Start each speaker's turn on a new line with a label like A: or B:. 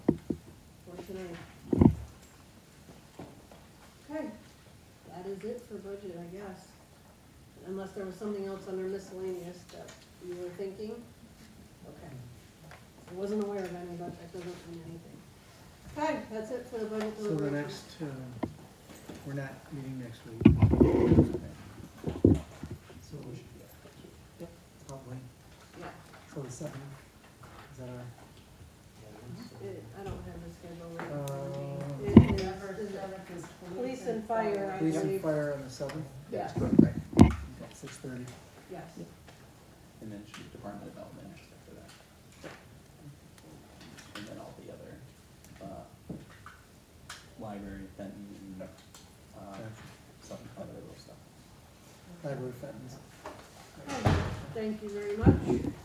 A: Okay, that is it for budget, I guess. Unless there was something else under miscellaneous that you were thinking? Okay. I wasn't aware of any, but that doesn't mean anything. Okay, that's it for the budget
B: So the
A: deliberation.
B: next, uh, we're not meeting next week.
C: So we should, yeah, probably,
A: Yeah,
C: so the seventh, is that our,
A: it- I don't have the schedule. right in front of me.
B: Uh,
A: It is-
D: November
A: is it-
D: seventh is
A: Police and fire, I
B: Police and
A: believe.
B: fire on the seventh?
A: Yes,
B: Right.
C: six thirty?
A: yes.
E: And then shoot department development after that. And then all the other, uh, library, Benton, uh, some other little stuff.
B: Library fountains.
A: Okay, Thank you very much.